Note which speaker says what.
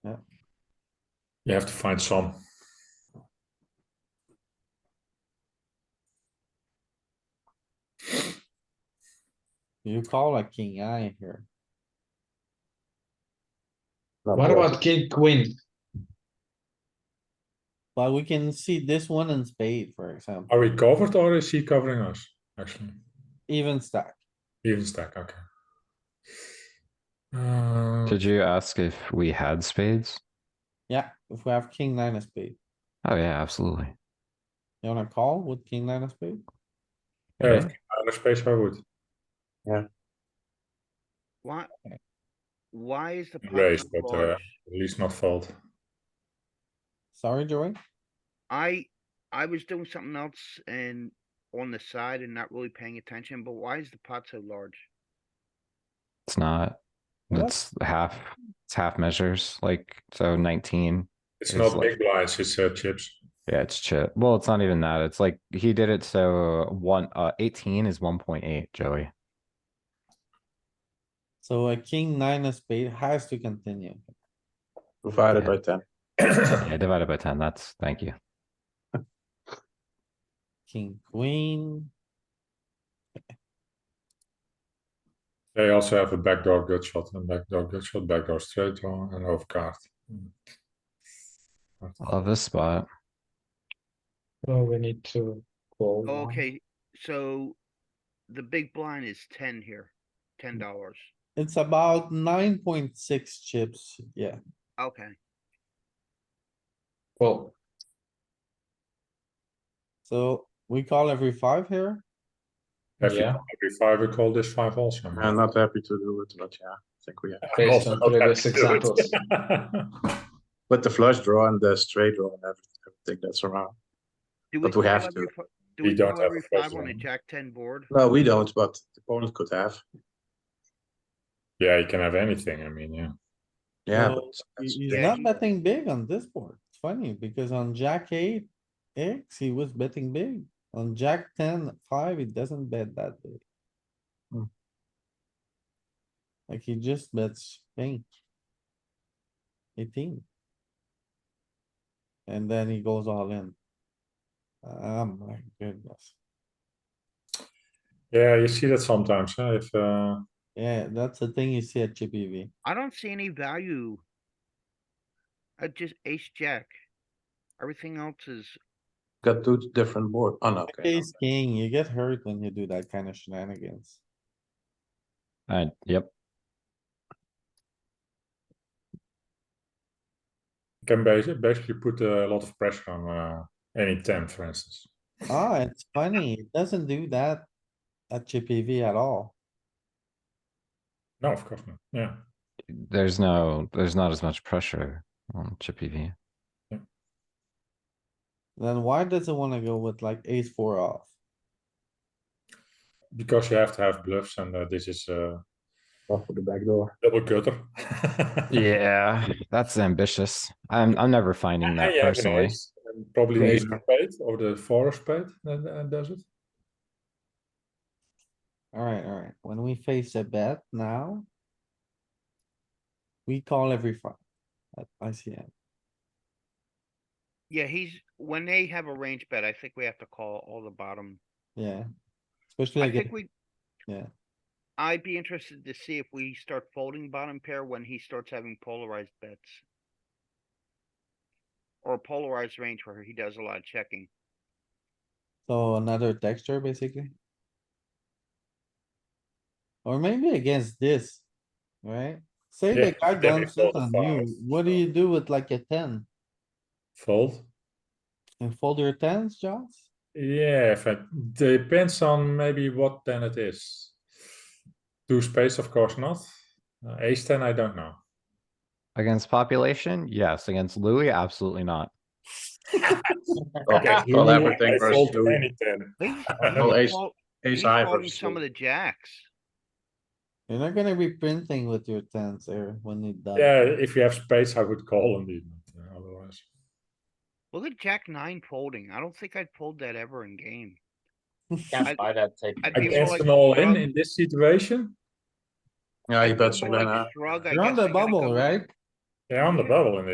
Speaker 1: You have to find some.
Speaker 2: You call a king eye here.
Speaker 3: Not
Speaker 4: What
Speaker 3: bad.
Speaker 4: about king, queen?
Speaker 2: But we can see this one in spade, for example,
Speaker 1: Are we covered or is he covering us? Actually,
Speaker 2: even stack.
Speaker 1: even stack. Okay. Uh,
Speaker 3: Did you ask if we had spades?
Speaker 2: Yeah, if we have king nine of spade,
Speaker 3: Oh yeah, absolutely.
Speaker 2: you wanna call with king nine of spade?
Speaker 1: yeah, if out of space, I would.
Speaker 5: Why? Why is the pot
Speaker 1: Raised,
Speaker 5: so
Speaker 1: but, uh,
Speaker 5: large?
Speaker 1: At least not fold.
Speaker 2: Sorry, Joey.
Speaker 5: I, I was doing something else and on the side and not really paying attention, but why is the pot so large?
Speaker 3: It's not.
Speaker 2: What?
Speaker 3: It's half, it's half measures, like, so nineteen.
Speaker 1: It's,
Speaker 3: It's
Speaker 1: not
Speaker 3: like-
Speaker 1: big blinds. It's uh, chips.
Speaker 3: Yeah, it's chip. Well, it's not even that. It's like, he did it so one, uh, eighteen is one point eight, Joey.
Speaker 2: So a king nine of spade has to continue.
Speaker 6: Divided
Speaker 3: Yeah.
Speaker 6: by ten.
Speaker 3: Yeah, divided by ten, that's, thank you.
Speaker 2: King, queen,
Speaker 1: They also have a backdoor gut shot and backdoor gut shot, backdoor straight draw and overcard.
Speaker 3: Love this spot.
Speaker 4: No, we need to call. now.
Speaker 5: Oh, Okay, so the big blind is ten here, ten
Speaker 6: Mm.
Speaker 5: dollars.
Speaker 2: it's about nine point six chips, yeah.
Speaker 5: Okay,
Speaker 4: Well,
Speaker 2: So we call every five here,
Speaker 1: Every,
Speaker 4: Yeah.
Speaker 1: every five, we call this five also.
Speaker 6: I'm not happy to do it, but yeah, I think we have.
Speaker 4: based
Speaker 1: Also
Speaker 4: on
Speaker 1: not
Speaker 4: previous
Speaker 1: happy to do
Speaker 4: examples.
Speaker 1: it.
Speaker 6: But the flush draw and the straight draw and everything, everything that's around.
Speaker 5: do we
Speaker 6: But we
Speaker 5: call
Speaker 6: have
Speaker 5: every
Speaker 6: to.
Speaker 5: fi- Do
Speaker 1: We
Speaker 5: we
Speaker 1: don't
Speaker 5: call
Speaker 1: have
Speaker 5: every
Speaker 1: a first
Speaker 5: five on a
Speaker 1: one.
Speaker 5: jack ten board?
Speaker 6: No, we don't, but the opponent could have.
Speaker 1: yeah, you can have anything. I mean, yeah.
Speaker 6: Yeah.
Speaker 2: No,
Speaker 6: but that's-
Speaker 2: he's
Speaker 6: yeah,
Speaker 2: not betting big on this board, it's funny, because on jack eight, X, he was betting big. On jack ten, five, he doesn't bet that big.
Speaker 6: Hmm.
Speaker 2: Like he just bets pink. Eighteen. And then he goes all in. Oh my goodness,
Speaker 1: Yeah, you see that sometimes. Huh? If uh,
Speaker 2: yeah, that's the thing you see at Chippy V.
Speaker 5: I don't see any value. I just ace jack. Everything else is,
Speaker 6: Got two different board. Oh, no, okay. no.
Speaker 2: Ace king, you get hurt when you do that kind of shenanigans.
Speaker 3: I, yep,
Speaker 1: you can basically, basically put a lot of pressure on uh, any 10, for instance.
Speaker 2: Ah, it's funny, it doesn't do that at Chippy V at all.
Speaker 1: No, of course not. Yeah.
Speaker 3: there's no, there's not as much pressure on chippy V.
Speaker 2: Then why does it wanna go with like ace four off?
Speaker 1: Because you have to have bluffs, and uh, this is a uh,
Speaker 6: Off with the back door.
Speaker 1: double gutter.
Speaker 3: Yeah, that's ambitious. I'm, I'm never finding that
Speaker 1: you have an
Speaker 3: personally.
Speaker 1: ace, and probably the ace of spade or the four of spade that uh, does it.
Speaker 2: Alright, alright, when we face a bet now. We call every five. at ICM.
Speaker 5: yeah, he's, when they have a range bet, I think we have to call all the bottom
Speaker 2: yeah. Especially
Speaker 5: I
Speaker 2: like,
Speaker 5: think
Speaker 2: it-
Speaker 5: we.
Speaker 2: yeah.
Speaker 5: I'd be interested to see if we start folding bottom pair when he starts having polarized bets. Or a polarized range where he does a lot of checking.
Speaker 2: so another texture basically. Or maybe against this, right? Say
Speaker 1: Yeah,
Speaker 2: the guy
Speaker 1: then we
Speaker 2: dumps it
Speaker 1: fold
Speaker 2: on
Speaker 1: five,
Speaker 2: you, what do
Speaker 1: so-
Speaker 2: you do with like a ten?
Speaker 1: Fold.
Speaker 2: And fold your tens, Josh?
Speaker 1: Yeah, if it depends on maybe what ten it is. Two spades, of course not. Uh, ace ten, I don't know.
Speaker 3: Against population? Yes. Against Louis? Absolutely not.
Speaker 6: Okay,
Speaker 1: Louis,
Speaker 6: well, everything
Speaker 1: I
Speaker 6: versus
Speaker 1: fold
Speaker 6: Louis.
Speaker 1: any ten.
Speaker 5: He's-
Speaker 6: Well,
Speaker 5: he's
Speaker 6: ace-
Speaker 5: fold-
Speaker 6: Ace
Speaker 5: he's
Speaker 6: high
Speaker 5: folding
Speaker 6: versus
Speaker 5: Some of
Speaker 6: Louis.
Speaker 5: the jacks.
Speaker 2: You're not gonna be printing with your tens there when you die.
Speaker 1: Yeah, if you have spades, I would call indeed. But, uh, otherwise,
Speaker 5: Look at jack nine folding. I don't think I'd fold that ever in game. I-
Speaker 7: Can't buy that take.
Speaker 5: I'd be more
Speaker 1: against
Speaker 5: like
Speaker 1: an all in
Speaker 5: shrug-
Speaker 1: in this situation,
Speaker 6: Yeah, he
Speaker 5: I'd be
Speaker 6: bets
Speaker 5: more
Speaker 6: all in,
Speaker 5: like
Speaker 6: huh?
Speaker 5: shrug, I
Speaker 2: You're on
Speaker 5: guess I
Speaker 2: the
Speaker 5: gotta go
Speaker 2: bubble,
Speaker 5: with-
Speaker 2: right?
Speaker 1: yeah, on the bubble in